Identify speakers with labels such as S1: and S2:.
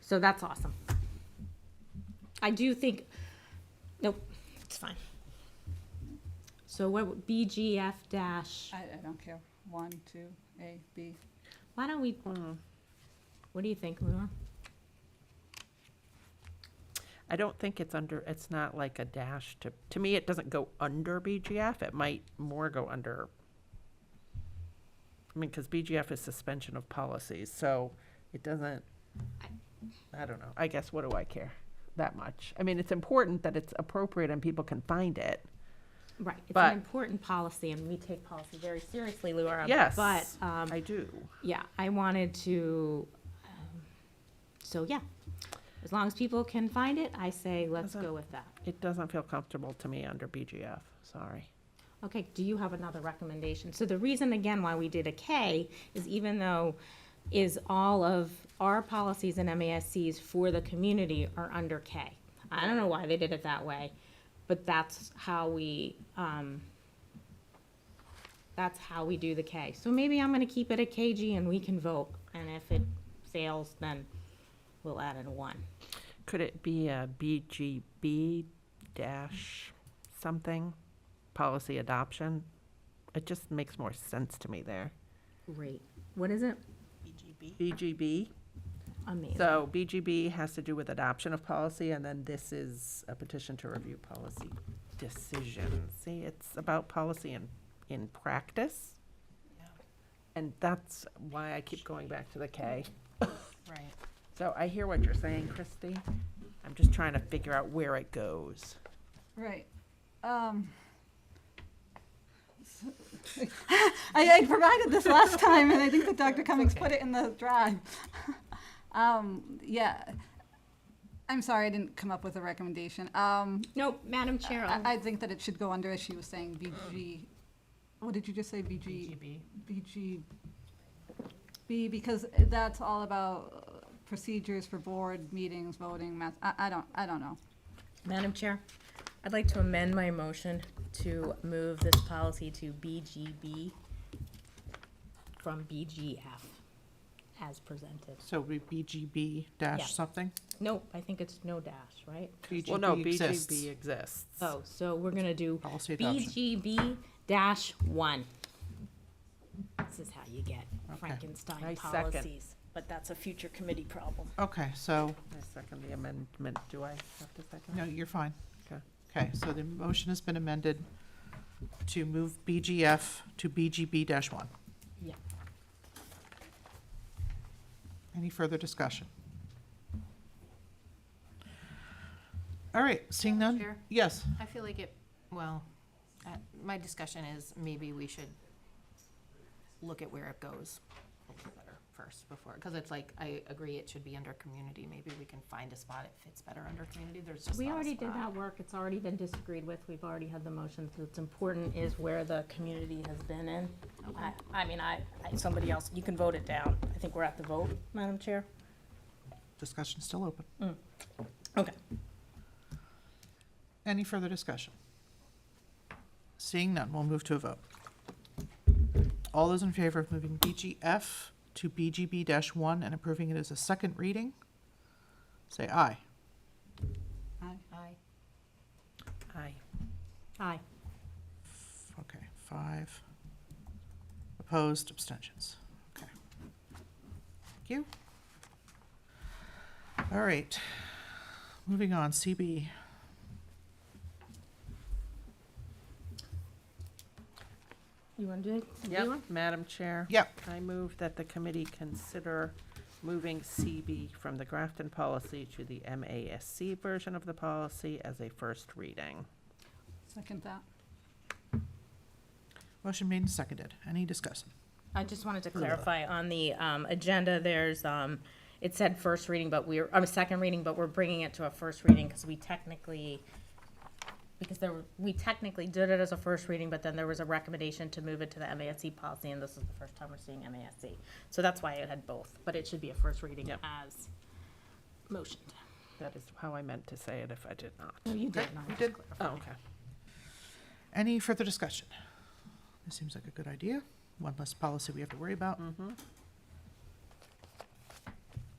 S1: So that's awesome. I do think, nope, it's fine. So what, BGF dash,
S2: I, I don't care. One, two, A, B.
S1: why don't we, what do you think, Laura?
S3: I don't think it's under, it's not like a dash to, to me, it doesn't go under BGF. It might more go under, I mean, because BGF is suspension of policies, so it doesn't, I don't know. I guess, what do I care that much? I mean, it's important that it's appropriate and people can find it.
S1: Right, it's
S3: But-
S1: an important policy and we take policy very seriously, Laura.
S3: Yes.
S1: But, um,
S3: I do.
S1: yeah, I wanted to, um, so yeah. As long as people can find it, I say let's
S3: Doesn't-
S1: go with that.
S3: It doesn't feel comfortable to me under BGF, sorry.
S1: Okay, do you have another recommendation? So the reason, again, why we did a K is even though is all of our policies and MASCs for the community are under K. I don't know why they did it that way, but that's how we, um, that's how we do the K. So maybe I'm gonna keep it a KG and we can vote, and if it fails, then we'll add in a one.
S3: Could it be a BGB dash something, policy adoption? It just makes more sense to me there.
S1: Great. What is it?
S3: BGB,
S1: Amazing.
S3: so BGB has to do with adoption of policy, and then this is a petition to review policy decision. See, it's about policy in, in practice. And that's why I keep going back to the K.
S4: Right.
S3: So I hear what you're saying, Christy. I'm just trying to figure out where it goes.
S2: Right. Um. s- I, I provided this last time, and I think that Dr. Cummings put it in the drive. Um, yeah. I'm sorry, I didn't come up with a recommendation. Um,
S1: No, Madam Chair, I'll-
S2: I, I think that it should go under, as she was saying, BG, what did you just say, BG? BGB, because that's all about uh, procedures for board meetings, voting, math, I, I don't, I don't know.
S1: Madam Chair, I'd like to amend my motion to move this policy to BGB from BGF as presented.
S5: So it'd be BGB
S1: Yeah.
S5: dash something?
S1: Nope, I think it's no dash, right?
S3: Well, no,
S5: BGB exists.
S3: BGB exists.
S1: Oh, so we're gonna do
S5: Policy adoption.
S1: BGB dash one. This is how you get
S5: Okay.
S3: I
S1: Frankenstein
S3: second.
S1: policies, but that's a future committee problem.
S5: Okay, so,
S3: I second the amendment. Do I have to second?
S5: no, you're fine.
S3: Okay.
S5: Okay, so the motion has been amended to move BGF to BGB dash one.
S1: Yeah.
S5: Any further discussion? All right, seeing
S4: Madam
S5: none?
S4: Chair?
S5: Yes,
S4: I feel like it, well, uh, my discussion is maybe we should look at where it goes a little better first before, because it's like, I agree it should be under community. Maybe we can find a spot it fits better under community. There's just
S1: We
S4: not a
S1: already did
S4: spot.
S1: that work, it's already been disagreed with, we've already had the motion, so it's important is where the community has been in. I, I mean, I, I- somebody else, you can vote it down, I think we're at the vote, Madam Chair.
S5: discussion's still open.
S1: Okay.
S5: Any further discussion? Seeing none, we'll move to a vote. All those in favor of moving BGF to BGB one and approving it as a second reading, say aye.
S2: I-
S4: Aye.
S3: Aye.
S1: Aye.
S5: Okay, five. Opposed, abstentions. Okay. Thank you. All right, moving on, CB.
S1: You wanna do it? You
S3: Yep,
S1: want?
S3: Madam Chair.
S5: Yep,
S3: I move that the committee consider moving CB from the Grafton policy to the MASC version of the policy as a first reading.
S2: Second that.
S5: motion made and seconded. Any discussion?
S1: I just wanted to clarify, on the, um, agenda, there's, um, it said first reading, but we're, um, second reading, but we're bringing it to a first reading, cause we technically, because there were, we technically did it as a first reading, but then there was a recommendation to move it to the MASC policy, and this is the first time we're seeing MASC. So that's why it had both, but it should be a first reading
S3: Yep.
S1: as motioned.
S3: That is how I meant to say it if I did not.
S1: No, you did
S5: We did.
S3: Oh, okay.
S5: Any further discussion? This seems like a good idea. One less policy we have to worry about.